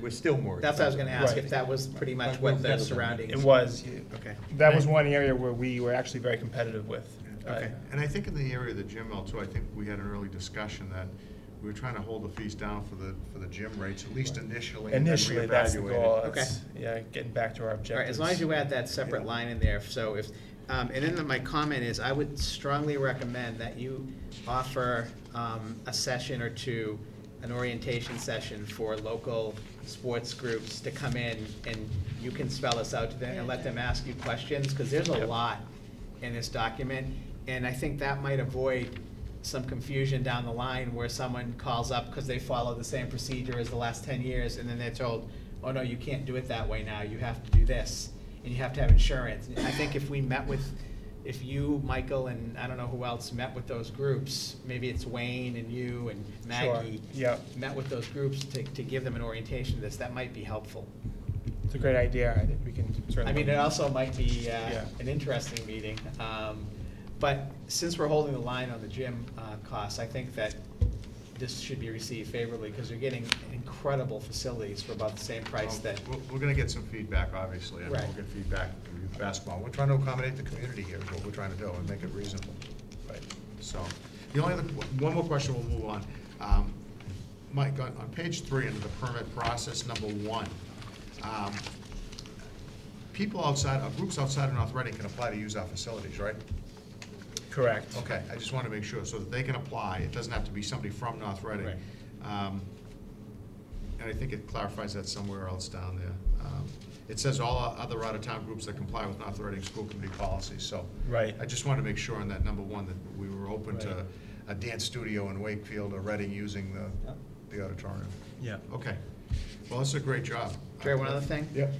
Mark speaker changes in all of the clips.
Speaker 1: was still more.
Speaker 2: That's what I was gonna ask, if
Speaker 3: Right.
Speaker 2: that was pretty much
Speaker 1: Right.
Speaker 2: what the
Speaker 1: Right.
Speaker 2: surroundings.
Speaker 3: It was.
Speaker 4: Okay.
Speaker 3: That was one area where we were actually very competitive with. uh,
Speaker 4: Okay, and I think in the area of the gym mill too, I think we had an early discussion that we were trying to hold the fees down for the, for the gym rates, at least initially. and then
Speaker 3: Initially, that's the
Speaker 4: reevaluate it.
Speaker 3: goal.
Speaker 2: Okay.
Speaker 3: It's- Yeah, getting back to our
Speaker 2: All right,
Speaker 3: objectives.
Speaker 2: as long as you add that separate
Speaker 3: Yeah.
Speaker 2: line in there, so if, um, and then my comment is, I would strongly recommend that you offer, um, a session or two, an orientation session for local sports groups to come in, and you can spell this out to them and let them ask you questions, because there's a
Speaker 3: Yep.
Speaker 2: lot in this document, and I think that might avoid some confusion down the line where someone calls up because they follow the same procedure as the last ten years, and then they're told, oh, no, you can't do it that way now, you have to do this, and you have to have insurance. And I think if we met with, if you, Michael, and I don't know who else met with those groups, maybe it's Wayne and you and
Speaker 3: Sure,
Speaker 2: Maggie.
Speaker 3: yeah.
Speaker 2: Met with those groups to, to give them an orientation of this, that might be helpful.
Speaker 3: It's a great idea. I think we can certainly.
Speaker 2: I mean, it also might be uh,
Speaker 3: Yeah.
Speaker 2: an interesting meeting. um, But since we're holding the line on the gym uh, costs, I think that this should be received favorably because you're getting incredible facilities for about the same price
Speaker 4: Well,
Speaker 2: that,
Speaker 4: Um, We're, we're gonna get some feedback, obviously, and we'll
Speaker 2: Right.
Speaker 4: get feedback from youth basketball. We're trying to accommodate the community here, is what we're trying to do, and make it reasonable.
Speaker 3: Right.
Speaker 4: So, the only other, one more question, we'll move on. Um, Mike, on, on page three, under the permit process, number one, um, people outside, uh, groups outside of North Reading can apply to use our facilities, right?
Speaker 3: Correct.
Speaker 4: Okay, I just want to make sure, so that they can apply, it doesn't have to be somebody from North Reading.
Speaker 2: Right.
Speaker 4: Um, And I think it clarifies that somewhere else down there. Um, It says all o- other out-of-town groups that comply with North Reading School Committee policies, so.
Speaker 3: Right.
Speaker 4: I just want to make sure on that, number one, that we were open to
Speaker 3: Right.
Speaker 4: a dance studio in Wakefield or Reading using the,
Speaker 2: Yep.
Speaker 4: the auditorium.
Speaker 3: Yeah.
Speaker 4: Okay, well, that's a great job.
Speaker 2: Jerry, one other thing?
Speaker 4: Yep.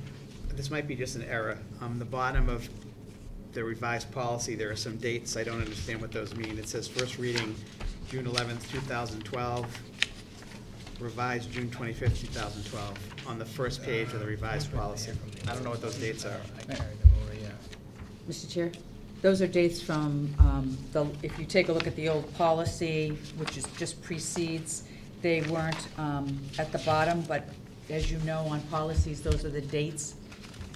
Speaker 2: This might be just an error. On the bottom of the revised policy, there are some dates. I don't understand what those mean. It says first reading, June eleventh, two thousand twelve, revised June twenty-fifth, two thousand twelve, on the first page of the revised policy. I don't know what those dates are.
Speaker 3: I carried them over, yeah.
Speaker 5: Mr. Chair, those are dates from, um, the, if you take a look at the old policy, which is, just precedes, they weren't um, at the bottom, but as you know, on policies, those are the dates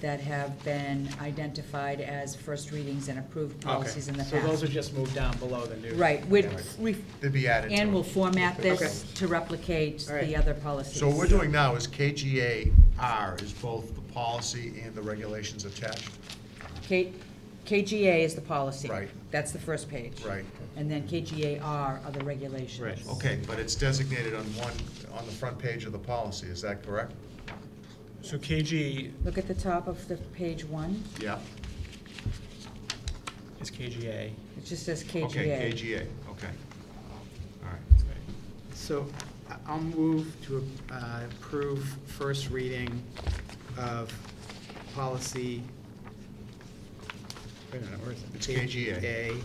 Speaker 5: that have been identified as first readings and approved policies in the past.
Speaker 2: So those are just moved down below the new.
Speaker 5: Right, we'd,
Speaker 4: Yeah.
Speaker 5: we,
Speaker 4: They'd be added to
Speaker 5: Ann
Speaker 4: it.
Speaker 5: will format this
Speaker 2: Okay.
Speaker 5: to replicate
Speaker 2: All right.
Speaker 5: the other policies.
Speaker 4: So what we're doing now is KGAR is both the policy and the regulations attached.
Speaker 5: K, KGA is the policy.
Speaker 4: Right.
Speaker 5: That's the first page.
Speaker 4: Right.
Speaker 5: And then KGAR are the regulations.
Speaker 2: Right.
Speaker 4: Okay, but it's designated on one, on the front page of the policy, is that correct?
Speaker 3: So KG,
Speaker 5: Look at the top of the page one,
Speaker 4: Yeah.
Speaker 3: is KGA.
Speaker 5: it just says KGA.
Speaker 4: Okay, KGA, okay. All right.
Speaker 2: So I- I'll move to uh, approve first reading of policy. Wait a minute, where is it?
Speaker 4: It's KGA.
Speaker 2: KGA.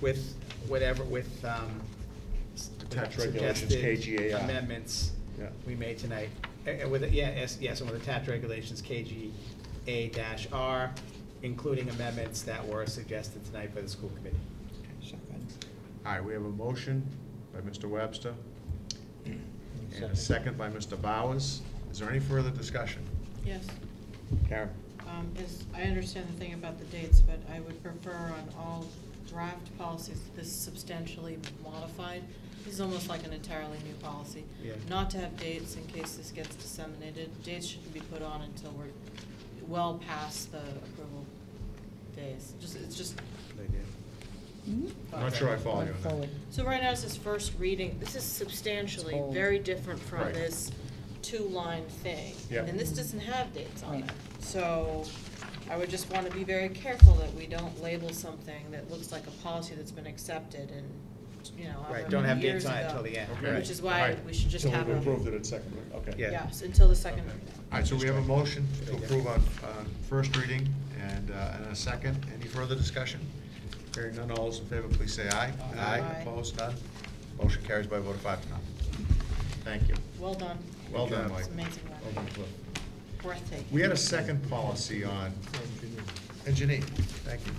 Speaker 2: With whatever, with um, s-
Speaker 4: Attached regulations,
Speaker 2: suggested
Speaker 4: KGAI.
Speaker 2: amendments
Speaker 4: Yeah.
Speaker 2: we made tonight. And- and with, yeah, yes, yes, and with attached regulations, KGA dash R, including amendments that were suggested tonight by the school committee.
Speaker 4: All right, we have a motion by Mr. Webster, and a second by Mr. Bowers. Is there any further discussion?
Speaker 6: Yes,
Speaker 4: Karen?
Speaker 6: um, is, I understand the thing about the dates, but I would prefer on all draft policies, this is substantially modified. This is almost like an entirely new policy.
Speaker 2: Yeah.
Speaker 6: Not to have dates in case this gets disseminated. Dates shouldn't be put on until we're well past the approval days. Just, it's just.
Speaker 5: Mhm.
Speaker 4: I'm not sure I follow you on that.
Speaker 5: Forward.
Speaker 6: So right now, this is first reading, this is substantially
Speaker 5: It's old.
Speaker 6: very different from
Speaker 4: Right.
Speaker 6: this two-line thing.
Speaker 4: Yeah.
Speaker 6: And this doesn't have dates on it.
Speaker 5: Right.
Speaker 6: So I would just want to be very careful that we don't label something that looks like a policy that's been accepted and, you know,
Speaker 2: Right,
Speaker 6: however
Speaker 2: don't have
Speaker 6: many years
Speaker 2: dates
Speaker 6: ago.
Speaker 2: on it until the end.
Speaker 4: Okay.
Speaker 6: Which is why we should just
Speaker 4: So we've
Speaker 6: have a-
Speaker 4: approved it at second reading, okay.
Speaker 2: Yeah.
Speaker 6: Yes, until the second
Speaker 4: Okay.
Speaker 6: reading.
Speaker 4: All right, so we have a motion to approve on, on first reading and, uh, and a second. Any further discussion? Hearing none, all those in favor, please say aye.
Speaker 6: Aye. Aye.
Speaker 4: Opposed, none. Motion carries by a vote of five to none. Thank you.
Speaker 6: Well done.
Speaker 4: Well done, Mike.
Speaker 6: It's amazing,
Speaker 4: Well done, Cliff.
Speaker 6: breathtaking.
Speaker 4: We had a second policy on engineer, thank you.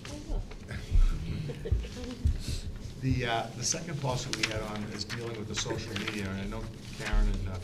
Speaker 6: Oh,
Speaker 4: The, uh, the second policy we had on is dealing with the social media, and I know Karen and uh,